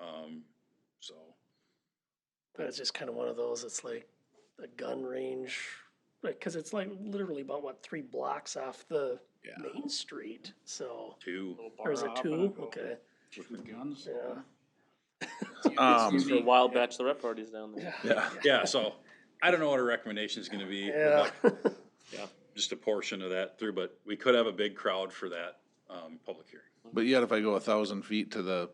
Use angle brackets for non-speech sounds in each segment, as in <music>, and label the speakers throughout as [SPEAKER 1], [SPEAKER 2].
[SPEAKER 1] Um, so.
[SPEAKER 2] But it's just kind of one of those, it's like a gun range, because it's like literally about, what, three blocks off the
[SPEAKER 1] Yeah,
[SPEAKER 2] main street, so.
[SPEAKER 1] two.
[SPEAKER 3] Little
[SPEAKER 2] Or is
[SPEAKER 3] bar
[SPEAKER 2] it
[SPEAKER 3] hop and
[SPEAKER 2] two?
[SPEAKER 3] go
[SPEAKER 2] Okay,
[SPEAKER 3] With the guns.
[SPEAKER 2] yeah.
[SPEAKER 1] Um,
[SPEAKER 4] These are wild bachelorette parties down there.
[SPEAKER 1] Yeah, yeah, so I don't know what our recommendation is gonna be. We'd
[SPEAKER 2] Yeah,
[SPEAKER 1] <laughs> like Just a portion of that through, but we could have a big crowd for that, um, public hearing.
[SPEAKER 5] But yet, if I go a thousand feet to the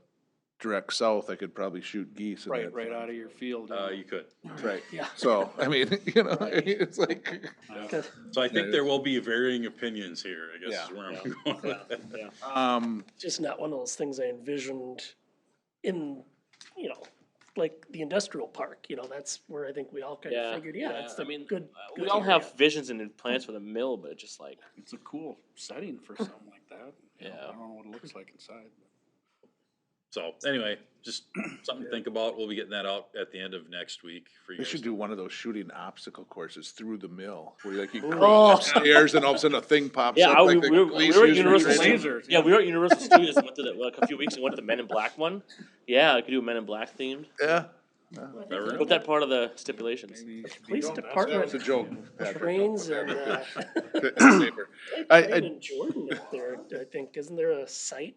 [SPEAKER 5] direct south, I could probably shoot geese. and
[SPEAKER 3] Right,
[SPEAKER 5] that's
[SPEAKER 3] right
[SPEAKER 5] fine.
[SPEAKER 3] out of your field.
[SPEAKER 1] Uh, you could.
[SPEAKER 5] Right.
[SPEAKER 2] Yeah.
[SPEAKER 5] So, I mean, <laughs> you know, it's like,
[SPEAKER 1] So I think
[SPEAKER 5] Yeah.
[SPEAKER 1] there will be varying opinions here, I guess
[SPEAKER 5] Yeah.
[SPEAKER 1] is where I'm going with that.
[SPEAKER 5] um,
[SPEAKER 2] just not one of those things I envisioned in, you know, like the industrial park, you know, that's where I think we all kind
[SPEAKER 4] Yeah,
[SPEAKER 2] of figured, yeah,
[SPEAKER 4] yeah,
[SPEAKER 2] it's
[SPEAKER 4] I
[SPEAKER 2] the
[SPEAKER 4] mean, uh,
[SPEAKER 2] good.
[SPEAKER 4] We
[SPEAKER 2] good
[SPEAKER 4] all
[SPEAKER 2] area.
[SPEAKER 4] have visions and plans for the mill, but it's just like,
[SPEAKER 3] It's a cool setting <laughs> for something like that. You know,
[SPEAKER 4] Yeah.
[SPEAKER 3] I don't know what it looks like inside.
[SPEAKER 1] So anyway, just something to think about. We'll be getting that out at the end of next week for you
[SPEAKER 5] They
[SPEAKER 1] guys.
[SPEAKER 5] should do one of those shooting obstacle courses through the mill, where like you
[SPEAKER 2] Oh.
[SPEAKER 5] crawl upstairs and all of a sudden a thing pops
[SPEAKER 4] yeah,
[SPEAKER 5] up.
[SPEAKER 4] I, we,
[SPEAKER 5] like the
[SPEAKER 4] we, were- we
[SPEAKER 5] police
[SPEAKER 4] were at
[SPEAKER 5] use for
[SPEAKER 4] Universal.
[SPEAKER 5] training.
[SPEAKER 3] Lasers,
[SPEAKER 4] yeah,
[SPEAKER 3] yeah.
[SPEAKER 4] we were at Universal Studios and went to the like a few weeks ago. Went to the Men in Black one. Yeah, I could do a Men in Black themed.
[SPEAKER 5] Yeah,
[SPEAKER 1] Never know.
[SPEAKER 4] Put that part of the stipulations.
[SPEAKER 2] Police
[SPEAKER 5] that
[SPEAKER 2] department
[SPEAKER 5] was a joke. Patrick.
[SPEAKER 2] trains and, uh, <laughs>
[SPEAKER 5] <laughs> I-
[SPEAKER 2] train
[SPEAKER 5] I-
[SPEAKER 2] in Jordan up there, I think, isn't there a site,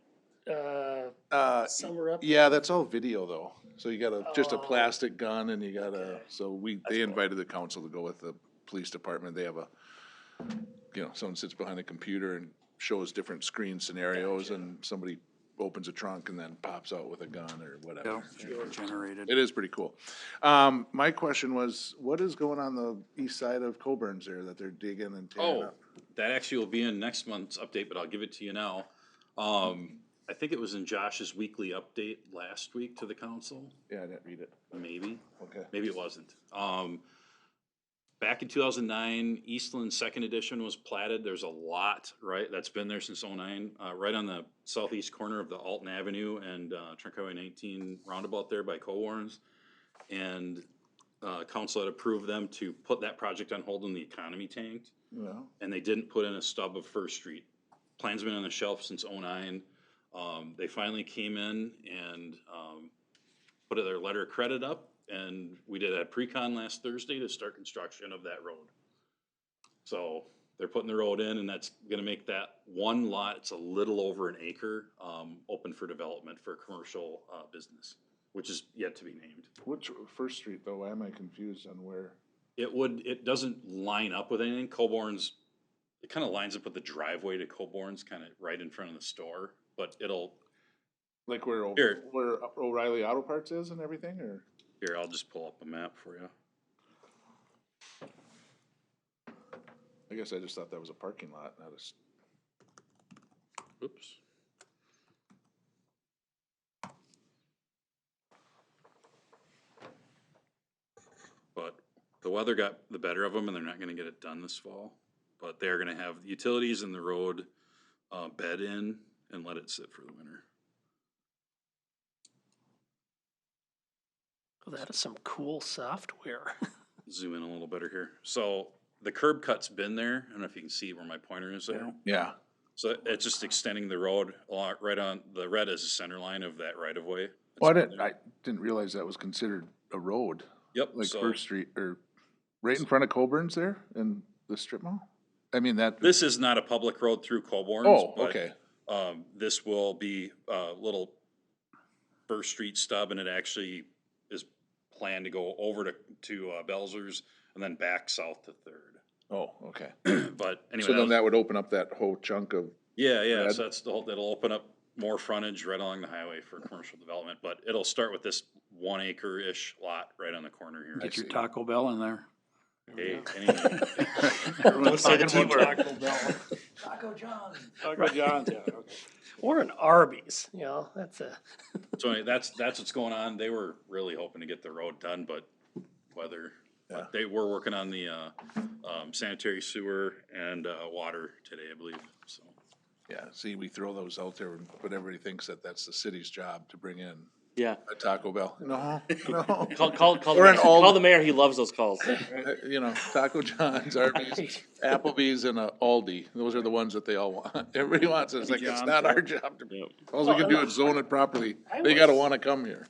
[SPEAKER 2] uh,
[SPEAKER 5] Uh,
[SPEAKER 2] somewhere up?
[SPEAKER 5] Yeah, that's all video though. So you got a, just a
[SPEAKER 2] Oh.
[SPEAKER 5] plastic gun and you got a,
[SPEAKER 2] Okay.
[SPEAKER 5] so we,
[SPEAKER 4] cool.
[SPEAKER 5] they invited the council to go with the police department. They have a, you know, someone sits behind a computer and shows different screen scenarios and somebody opens a trunk and then pops out with a gun or whatever.
[SPEAKER 3] Generated.
[SPEAKER 5] It is pretty cool. Um, my question was, what is going on the east side of Coburn's there that they're digging and tearing
[SPEAKER 1] Oh,
[SPEAKER 5] up?
[SPEAKER 1] that actually will be in next month's update, but I'll give it to you now. Um, I think it was in Josh's weekly update last week to the council,
[SPEAKER 5] Yeah, I didn't read it.
[SPEAKER 1] maybe.
[SPEAKER 5] Okay.
[SPEAKER 1] maybe it wasn't. Um, back in two thousand nine, Eastland Second Edition was platted. There's a lot, right, that's been there since 09, uh, right on the southeast corner of the Alton Avenue and, uh, Trinco nineteen roundabout there by Cowarns. And, uh, council had approved them to put that project on hold when the economy tanked
[SPEAKER 5] Well,
[SPEAKER 1] and they didn't put in a stub of First Street. Plan's been on the shelf since oh-nine. Um, they finally came in and, um, put their letter of credit up, and we did a pre-con last Thursday to start construction of that road. So they're putting the road in, and that's gonna make that one lot, it's a little over an acre, um, open for development for commercial, uh, business, which is yet to be named.
[SPEAKER 5] which, First Street though, why am I confused on where?
[SPEAKER 1] It would, it doesn't line up with anything. Coburn's, it kind of lines up with the driveway to Coburn's, kind of right in front of the store, but it'll,
[SPEAKER 5] Like where, O-
[SPEAKER 1] Here.
[SPEAKER 5] where O'Reilly Auto Parts is and everything, or?
[SPEAKER 1] here, I'll just pull up a map for you.
[SPEAKER 5] I guess I just thought that was a parking lot, not a, s-
[SPEAKER 1] Oops. But the weather got the better of them and they're not gonna get it done this fall. But they're gonna have the utilities and the road, uh, bed in and let it sit for the winter.
[SPEAKER 2] Oh, That is some cool software. <laughs>
[SPEAKER 1] Zoom in a little better here. So the curb cut's been there. I don't know if you can see where my pointer is there.
[SPEAKER 5] yeah,
[SPEAKER 1] So it's just extending the road along, right on, the red is the center line of that right of way.
[SPEAKER 5] well, I didn't, I didn't realize that was considered a road,
[SPEAKER 1] Yep,
[SPEAKER 5] like
[SPEAKER 1] so-
[SPEAKER 5] First Street, or right in front of Coburn's there in the strip mall? I mean, that,
[SPEAKER 1] This is not a public road through Colborne.
[SPEAKER 5] oh, okay,
[SPEAKER 1] Um, this will be a little First Street stub and it actually is planned to go over to, to uh, Belzer's and then back south to Third. <clears throat>
[SPEAKER 5] oh, okay.
[SPEAKER 1] But anyway. that was-
[SPEAKER 5] So then that would open up that whole chunk of,
[SPEAKER 1] Yeah, yeah,
[SPEAKER 5] Brad?
[SPEAKER 1] so that's the whole, that'll open up more frontage right along the highway for commercial development, but it'll start with this one acre-ish lot right on the corner here.
[SPEAKER 3] Get your
[SPEAKER 5] see.
[SPEAKER 3] Taco Bell in there.
[SPEAKER 1] Hey, anyway,
[SPEAKER 3] <laughs> Everyone's
[SPEAKER 4] Second
[SPEAKER 3] talking
[SPEAKER 4] one,
[SPEAKER 3] about Taco Bell. <laughs> Taco John's, yeah, okay.
[SPEAKER 2] Or an Arby's, you know, that's a,
[SPEAKER 1] So anyway, that's, that's what's going on. They were really hoping to get the road done, but weather.
[SPEAKER 5] Yeah.
[SPEAKER 1] But they were working on the, uh, um, sanitary sewer and, uh, water today, I believe, so.
[SPEAKER 5] yeah, see, we throw those out there, but everybody thinks that that's the city's job to bring in
[SPEAKER 4] Yeah,
[SPEAKER 5] a Taco Bell. No, no,
[SPEAKER 4] call call call,
[SPEAKER 5] Or
[SPEAKER 4] the,
[SPEAKER 5] an
[SPEAKER 4] mayor.
[SPEAKER 5] all-
[SPEAKER 4] call the mayor. He loves those <laughs> calls.
[SPEAKER 5] uh, you know, Taco
[SPEAKER 2] <laughs>
[SPEAKER 5] John's, Arby's, Applebee's and uh, Aldi. Those are the ones that they all want. <laughs> Everybody wants it. It's like, it's not our job to,
[SPEAKER 4] Yep.
[SPEAKER 5] all we can do is zone it properly.
[SPEAKER 2] I
[SPEAKER 5] They gotta
[SPEAKER 2] was-
[SPEAKER 5] wanna come here.